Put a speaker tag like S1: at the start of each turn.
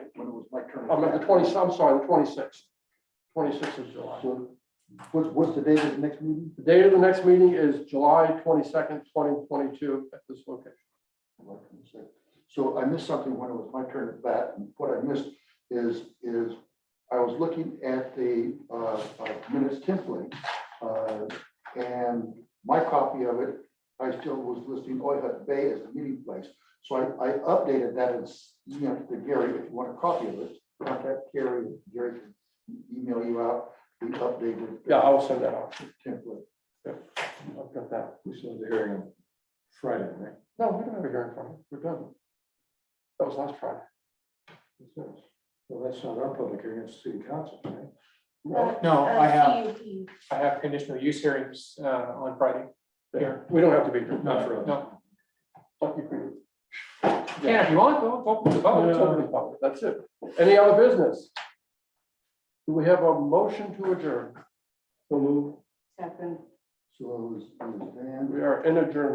S1: I'm at Oh, the twenty, I'm sorry, the twenty-sixth. Twenty-sixth of July.
S2: What's, what's the date of the next meeting?
S1: The date of the next meeting is July twenty-second, twenty twenty-two at this location.
S2: So I missed something when it was my turn at bat, and what I missed is, is I was looking at the uh, uh, minutes template, uh, and my copy of it, I still was listing Oyhut Bay as the meeting place. So I, I updated that as, you know, to Gary, if you want a copy of it, contact Gary, Gary can email you out the updated.
S1: Yeah, I will send that out.
S2: Template.
S1: I've got that.
S3: We still have the hearing on Friday, right?
S1: No, we don't have a hearing from it. We're done. That was last Friday.
S3: That's it. Well, that's not our public hearing, it's city council, right?
S1: No,
S4: No, I have,
S5: CUP.
S4: I have conditional use hearings uh, on Friday.
S1: yeah, we don't have to be here.
S3: Not for us.
S4: No,
S1: But you can-
S4: can if you want, go, go, go,
S1: Oh, it's open
S4: go.
S1: to the public. That's it. Any other business? Do we have a motion to adjourn? So move.
S5: Second.
S2: So it was, it was Dan.
S1: We are in adjournment.